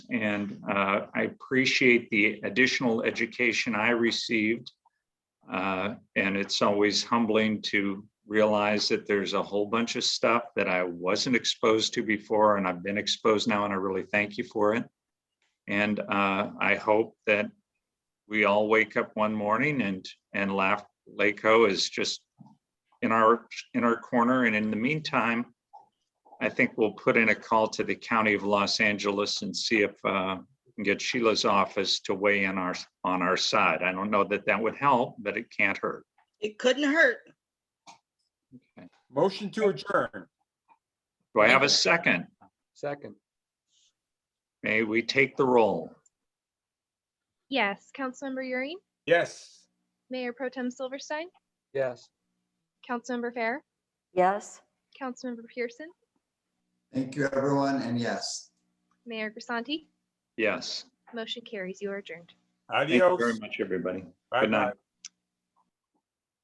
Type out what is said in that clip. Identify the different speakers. Speaker 1: and uh, I appreciate the additional education I received. Uh, And it's always humbling to realize that there's a whole bunch of stuff that I wasn't exposed to before, and I've been exposed now, and I really thank you for it. And uh, I hope that we all wake up one morning and, and laugh, LACO is just in our, in our corner. And in the meantime, I think we'll put in a call to the County of Los Angeles and see if uh, we can get Sheila's office to weigh in our, on our side. I don't know that that would help, but it can't hurt.
Speaker 2: It couldn't hurt.
Speaker 3: Motion to adjourn.
Speaker 1: Do I have a second?
Speaker 4: Second,
Speaker 1: May we take the roll?
Speaker 5: Yes, Councilmember Euring,
Speaker 3: Yes.
Speaker 5: Mayor Pro Tem Silverstein,
Speaker 4: yes.
Speaker 5: Councilmember Fair,
Speaker 6: yes.
Speaker 5: Councilmember Pearson,
Speaker 7: Thank you, everyone, and yes.
Speaker 5: Mayor Grisanti.
Speaker 1: Yes.
Speaker 5: Motion carries. You are adjourned.
Speaker 1: Thank you
Speaker 3: Adios.
Speaker 1: very much, everybody.
Speaker 3: Bye
Speaker 1: Good
Speaker 3: bye.
Speaker 1: night.